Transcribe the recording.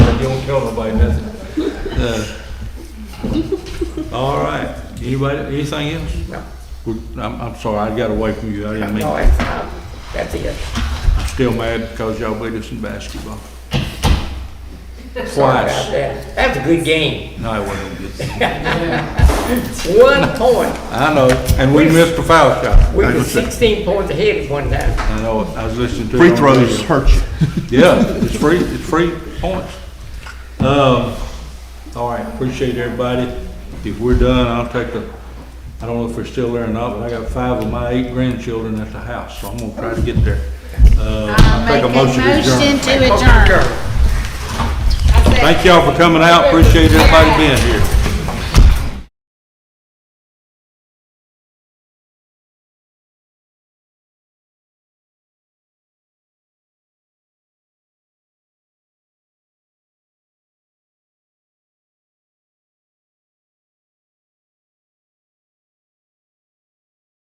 don't kill nobody, that's it. All right, anybody, anything else? No, Good. I'm, I'm sorry, I got away from you, I didn't mean, no, it's, um, that's it. I'm still mad because y'all beat us in basketball. Sorry Twice. about that. That's a good game. No, it wasn't good. One point. I know, and we We- missed the foul shot. We were sixteen points ahead at one time. I know, I was listening to. it Free on throws radio. hurt you. Yeah, it's free, it's free points. Um, all right, appreciate everybody. If we're done, I'll take the, I don't know if we're still there or not, but I got five of my eight grandchildren at the house, so I'm gonna try to get there. Uh, I'll Make take a motion to adjourn. to adjourn. Thank y'all for coming out, appreciate everybody being here.